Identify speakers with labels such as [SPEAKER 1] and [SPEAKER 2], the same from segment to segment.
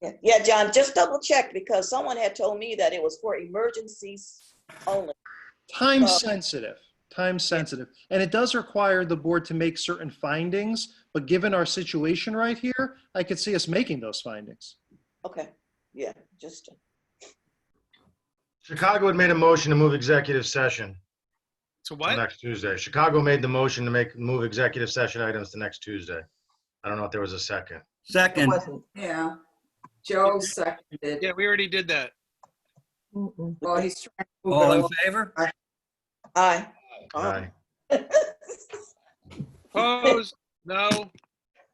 [SPEAKER 1] Yeah, Yeah, John, just double check because someone had told me that it was for emergencies only.
[SPEAKER 2] Time
[SPEAKER 1] Uh,
[SPEAKER 2] sensitive, time sensitive. And it does require the board to make certain findings, but given our situation right here, I could see us making those findings.
[SPEAKER 1] Okay, yeah, just,
[SPEAKER 3] Chicago had made a motion to move executive session
[SPEAKER 4] So
[SPEAKER 3] to
[SPEAKER 4] what?
[SPEAKER 3] next Tuesday. Chicago made the motion to make, move executive session items to next Tuesday. I don't know if there was a second.
[SPEAKER 5] Second,
[SPEAKER 6] Wasn't, yeah. Joe seconded.
[SPEAKER 4] Yeah, we already did that.
[SPEAKER 6] Well, he's trying to
[SPEAKER 5] all
[SPEAKER 6] move
[SPEAKER 5] in
[SPEAKER 6] it
[SPEAKER 5] favor?
[SPEAKER 1] aye.
[SPEAKER 3] Aye.
[SPEAKER 4] Opposed? No.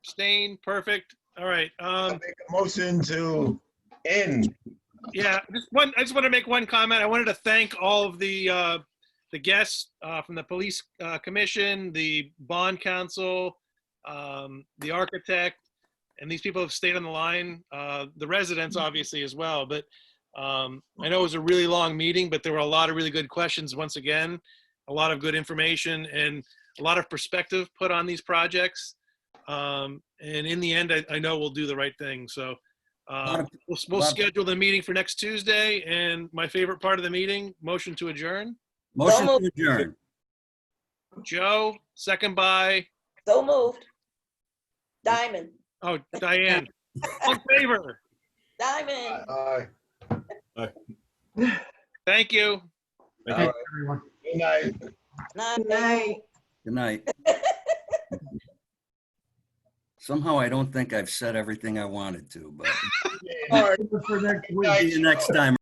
[SPEAKER 4] Abstain? Perfect. All right. Um,
[SPEAKER 7] make a motion to end.
[SPEAKER 4] yeah, just one, I just want to make one comment. I wanted to thank all of the, uh, the guests, uh, from the police, uh, commission, the bond council, um, the architect, and these people have stayed on the line, uh, the residents obviously as well, but, um, I know it was a really long meeting, but there were a lot of really good questions once again, a lot of good information and a lot of perspective put on these projects. Um, and in the end, I, I know we'll do the right thing, so,
[SPEAKER 5] Lot
[SPEAKER 4] um,
[SPEAKER 5] of
[SPEAKER 4] We'll, we'll
[SPEAKER 5] Love it.
[SPEAKER 4] schedule the meeting for next Tuesday, and my favorite part of the meeting, motion to adjourn.
[SPEAKER 5] Motion
[SPEAKER 1] Don't
[SPEAKER 5] to adjourn.
[SPEAKER 4] Joe, second by,
[SPEAKER 1] So moved. Diamond,
[SPEAKER 4] oh, Diane. All in favor.
[SPEAKER 1] diamond.
[SPEAKER 7] Aye.
[SPEAKER 4] Thank you.
[SPEAKER 7] All right. Good night.
[SPEAKER 1] Nine,
[SPEAKER 6] tonight.
[SPEAKER 5] Good night. Somehow I don't think I've said everything I wanted to, but
[SPEAKER 7] All right.
[SPEAKER 5] see you next time.